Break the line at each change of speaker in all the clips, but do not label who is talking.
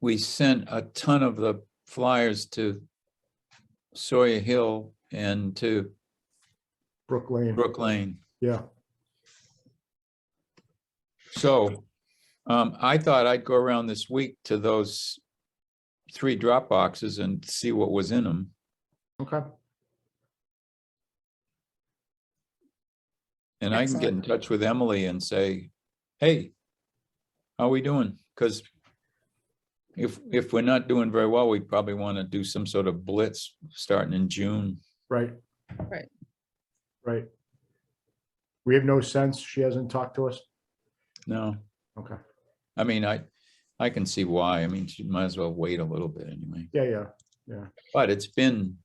we sent a ton of the flyers to Sawyer Hill and to
Brook Lane.
Brook Lane.
Yeah,
So um, I thought I'd go around this week to those three drop boxes and see what was in them.
okay.
And I can get in
Excellent.
touch with Emily and say, hey, how we doing? Because if, if we're not doing very well, we probably want to do some sort of blitz starting in June.
Right.
Right.
Right. We have no sense. She hasn't talked to us.
No,
Okay.
I mean, I, I can see why. I mean, she might as well wait a little bit anyway,
Yeah, yeah.
but it's been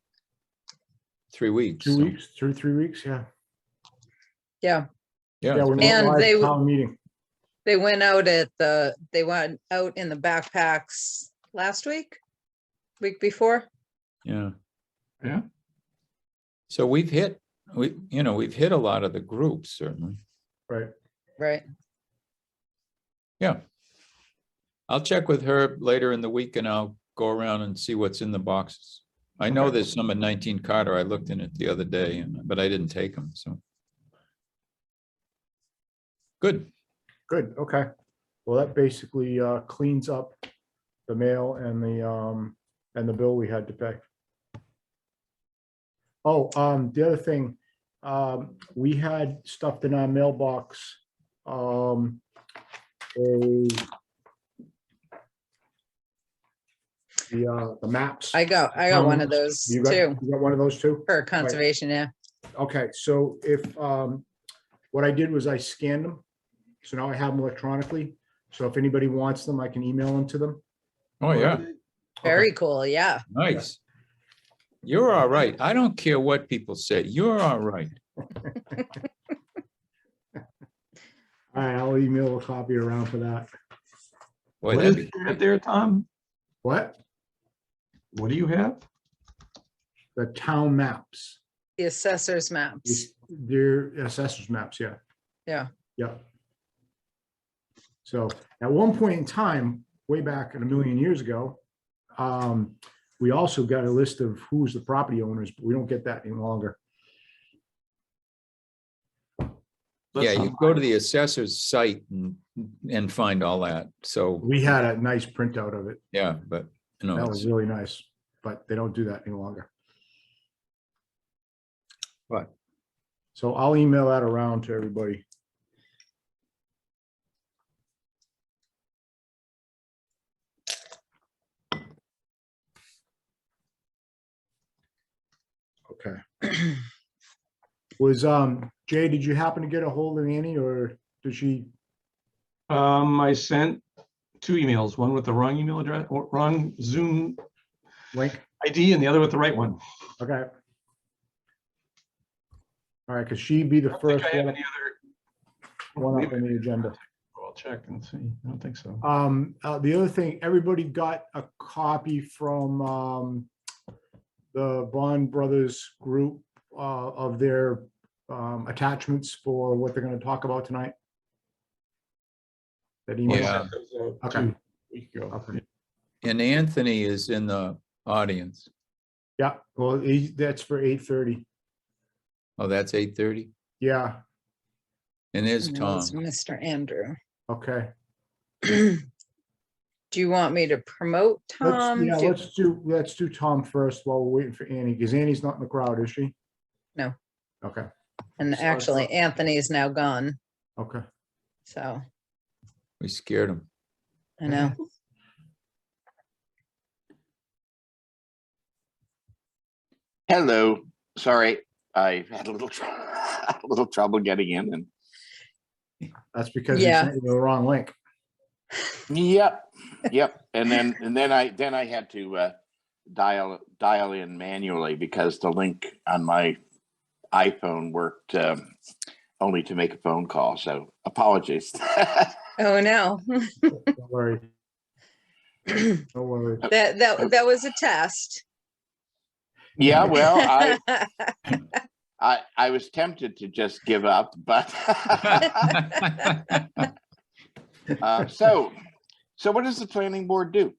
three weeks.
Two
so-
weeks, two, three weeks. Yeah.
Yeah,
Yeah,
Yeah. we're
it's
not
been-
And
live
they w-
Town meeting.
they went out at the, they went out in the backpacks last week, week before.
yeah.
Yeah.
So we've hit, we, you know, we've hit a lot of the groups certainly.
Right.
Right.
I'll check with her later in the week and I'll go around and see what's in the boxes. I know
Okay.
there's some at nineteen Carter. I looked in it the other day, and- but I didn't take them, so. Good,
Good. Okay. Well, that basically uh, cleans up the mail and the, um, and the bill we had to pay. Oh, um, the other thing, um, we had stuffed in our mailbox, um, a the, uh, the maps.
I got, I got one of
Um,
those
You got,
too
you got one of those too?
for conservation. Yeah.
Okay, so if, um, what I did was I scanned them. So now I have them electronically. So if anybody wants them, I can email them to them.
oh yeah,
Okay,
Very cool. Yeah.
nice. You're all right. I don't care what people say, you're all right.
All right, I'll email a copy around for that.
Boy,
What
that'd
is
be-
it right there, Tom?
What?
What do you have?
The town maps,
The assessor's maps.
their assessors maps, yeah.
Yeah.
Yeah. So at one point in time, way back in a million years ago, um, we also got a list of who's the property owners, but we don't get that any longer.
Yeah,
That's
you
not
go to
mine.
the assessor's site and, and find all that, so,
We had a nice printout of it.
yeah, but, you know,
That was
it's-
really nice, but they don't do that any longer.
Right.
So I'll email that around to everybody. Okay. Was, um, Jay, did you happen to get a hold of Annie or did she?
Um, I sent two emails, one with the wrong email address, or wrong Zoom
Link.
ID and the other with the right one.
Okay. All right, because she'd be
I
the
don't think
first
I have
one.
any
one
other.
up on the agenda.
I'll check and see. I don't think so.
Um, uh, the other thing, everybody got a copy from, um, the Bond Brothers group, uh, of their, um, attachments for what they're gonna talk about tonight? That email?
Yeah.
Okay.
Week ago.
Okay.
and Anthony is in the audience.
Yeah, well, he- that's for eight thirty.
Oh, that's eight thirty,
Yeah,
and there's
And that
Tom.
was Mr. Andrew.
okay.
Do you want me to promote
Let's,
Tom?
yeah,
Um, Do you-
let's do, let's do Tom first while we're waiting for Annie, because Annie's not in the crowd, is she?
No.
Okay,
And
sorry,
actually
Tom.
Anthony is now gone.
okay.
So
We scared him.
I know.
Hello, sorry, I had a little, tr- a little trouble getting in and.
That's because you
Yeah.
sent you the wrong link.
Yep, yep, and then, and then I, then I had to uh, dial, dial in manually because the link on my iPhone worked um, only to make a phone call, so apologies.
Oh, no.
Don't worry,
That,
don't worry.
that, that was a test.
Yeah, well, I, I, I was tempted to just give up, but uh, so, so what does the planning board do?